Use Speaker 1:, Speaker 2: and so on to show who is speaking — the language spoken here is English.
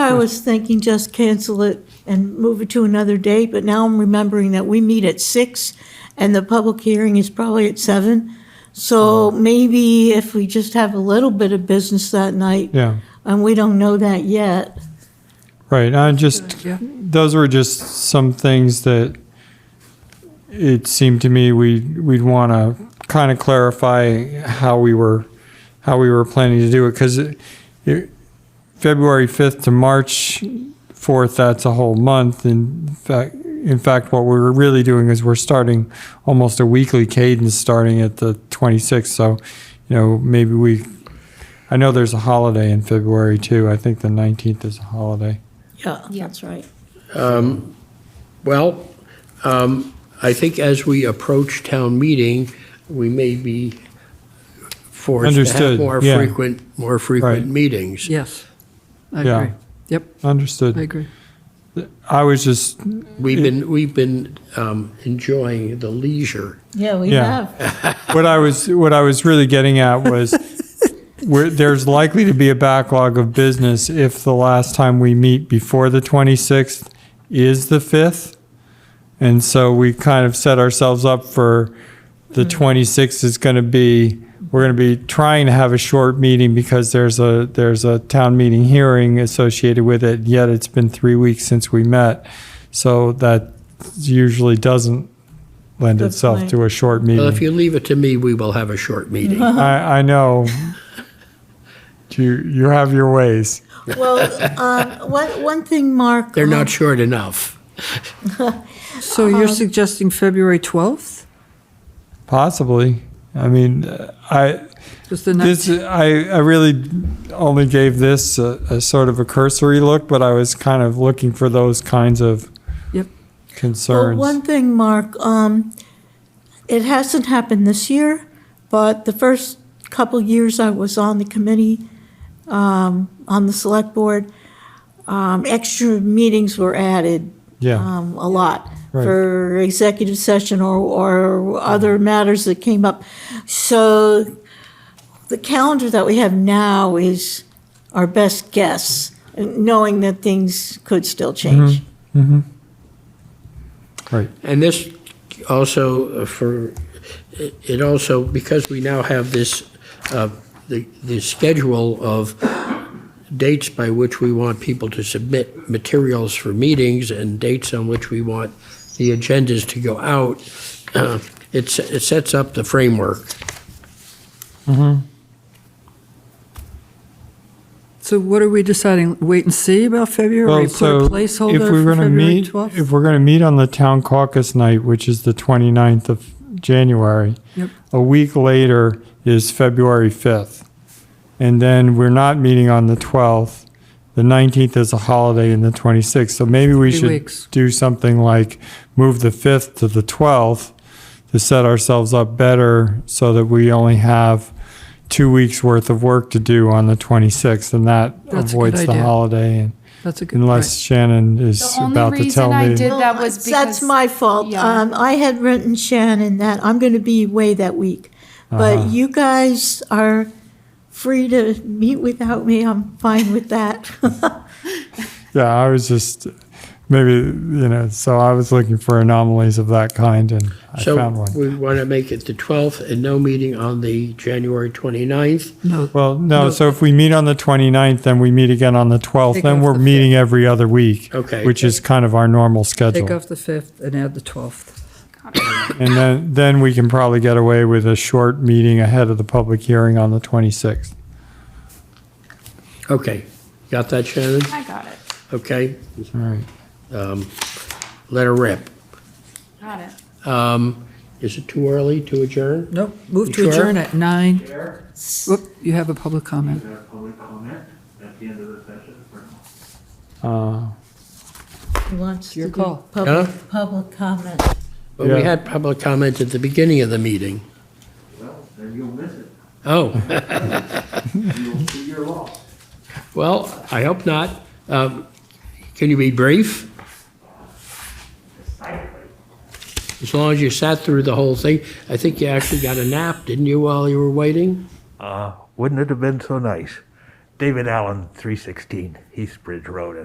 Speaker 1: I was thinking just cancel it and move it to another date, but now I'm remembering that we meet at six and the public hearing is probably at seven.
Speaker 2: Uh-huh.
Speaker 1: So maybe if we just have a little bit of business that night,
Speaker 3: Yeah,
Speaker 1: and we don't know that yet.
Speaker 3: right. I just, those were just some things that it seemed to me we, we'd want to kind of clarify how we were, how we were planning to do it. Cause it, it- February 5th to March 4th, that's a whole month. In fact, in fact, what we're really doing is we're starting almost a weekly cadence starting at the 26th. So, you know, maybe we, I know there's a holiday in February too. I think the 19th is a holiday.
Speaker 1: Yeah, that's right.
Speaker 2: Well, um, I think as we approach town meeting, we may be forced to have
Speaker 3: Understood,
Speaker 2: more
Speaker 3: yeah.
Speaker 2: frequent, more frequent
Speaker 3: Right.
Speaker 2: meetings.
Speaker 4: Yes, I
Speaker 3: Yeah.
Speaker 4: agree. Yep, I
Speaker 3: Understood.
Speaker 4: agree.
Speaker 3: I was just,
Speaker 2: We've been, we've been um, enjoying the leisure.
Speaker 1: Yeah, we
Speaker 3: Yeah.
Speaker 1: have.
Speaker 3: what I was, what I was really getting at was where there's likely to be a backlog of business if the last time we meet before the 26th is the 5th. And so we kind of set ourselves up for the 26th is going to be, we're going to be trying to have a short meeting because there's a, there's a town meeting hearing associated with it, yet it's been three weeks since we met. So that usually doesn't lend
Speaker 1: Good
Speaker 3: itself
Speaker 1: point.
Speaker 3: to a short meeting.
Speaker 2: Well, if you leave it to me, we will have a short meeting.
Speaker 1: Uh-huh.
Speaker 3: I, I know. You you have your ways.
Speaker 1: Well, uh, one, one thing, Mark.
Speaker 2: They're
Speaker 1: um,
Speaker 2: not short enough.
Speaker 4: So you're suggesting February 12th?
Speaker 3: Possibly. I mean, I
Speaker 4: Just the
Speaker 3: this
Speaker 4: next,
Speaker 3: I I really only gave this a, a sort of a cursory look, but I was kind of looking for those kinds of
Speaker 4: Yep.
Speaker 3: concerns.
Speaker 1: Well, one thing, Mark, um, it hasn't happened this year, but the first couple years I was on the committee, um, on the select board, um, extra meetings were added,
Speaker 3: yeah,
Speaker 1: um, a lot
Speaker 3: Right. Mm-hmm.
Speaker 1: for executive session or, or other matters that came up. So the calendar that we have now is our best guess, knowing that things could still
Speaker 3: Mm-hmm.
Speaker 1: change.
Speaker 3: right.
Speaker 2: And this also uh, for, it it also, because we now have this, uh, the, the schedule of dates by which we want people to submit materials for meetings and dates on which we want the agendas to go out, uh, it's, it sets up the framework.
Speaker 4: so what are we deciding? Wait and see about February?
Speaker 3: Well,
Speaker 4: Put a
Speaker 3: so if
Speaker 4: placeholder
Speaker 3: we're going
Speaker 4: for
Speaker 3: to
Speaker 4: February
Speaker 3: meet,
Speaker 4: 12th?
Speaker 3: if we're going to meet on the town caucus night, which is the 29th of January,
Speaker 4: Yep.
Speaker 3: a week later is February 5th. And then we're not meeting on the 12th. The 19th is a holiday and the 26th. So maybe we
Speaker 4: Three
Speaker 3: should
Speaker 4: weeks.
Speaker 3: do something like move the 5th to the 12th to set ourselves up better so that we only have two weeks worth of work to do on the 26th and that
Speaker 4: That's a good
Speaker 3: avoids the
Speaker 4: idea.
Speaker 3: holiday and
Speaker 4: That's a good,
Speaker 3: Unless
Speaker 4: right.
Speaker 3: Shannon is
Speaker 5: The only
Speaker 3: about to
Speaker 5: reason
Speaker 3: tell
Speaker 5: I
Speaker 3: me.
Speaker 5: did- that was
Speaker 1: That's
Speaker 5: because-
Speaker 1: my fault.
Speaker 5: Yeah.
Speaker 1: Um, I had written Shannon that I'm going to be away that week.
Speaker 5: Uh-huh.
Speaker 1: But you guys are free to meet without me. I'm fine with that.
Speaker 3: Yeah, I was just, maybe, you know, so I was looking for anomalies of that kind and I found
Speaker 2: So
Speaker 3: one.
Speaker 2: we want to make it the 12th and no meeting on the January 29th.
Speaker 4: No,
Speaker 3: Well, no,
Speaker 4: No.
Speaker 3: so if we meet on the 29th, then we meet again on the 12th,
Speaker 4: Take
Speaker 3: then
Speaker 4: off
Speaker 3: we're
Speaker 4: the
Speaker 3: meeting every other week.
Speaker 2: Okay.
Speaker 3: Which is kind of our normal
Speaker 4: take
Speaker 3: schedule.
Speaker 4: off the 5th and add the 12th.
Speaker 3: And then, then we can probably get away with a short meeting ahead of the public hearing on the 26th.
Speaker 2: Okay, got that, Shannon?
Speaker 5: I got it.
Speaker 2: Okay, um,
Speaker 3: All right.
Speaker 2: let her rip.
Speaker 5: Got it.
Speaker 2: Um, Is it too early to adjourn?
Speaker 4: No, move
Speaker 2: You
Speaker 4: to
Speaker 2: sure?
Speaker 4: adjourn at 9. Whoop, you have a public comment.
Speaker 6: Is there a public comment at the end of the session or not?
Speaker 3: Uh,
Speaker 1: He wants to
Speaker 4: Your
Speaker 1: do
Speaker 4: call.
Speaker 1: public,
Speaker 2: Huh?
Speaker 1: public comment.
Speaker 2: But we
Speaker 3: Yeah.
Speaker 2: had public comment at the beginning of the meeting.
Speaker 6: Well, then you'll miss it.
Speaker 2: Oh,
Speaker 6: You'll see your loss.
Speaker 2: well, I hope not. Um, Can you be brief? As long as you sat through the whole thing. I think you actually got a nap, didn't you, while you were waiting?
Speaker 7: Uh, wouldn't it have been so nice? David Allen, 316 East Bridge Road,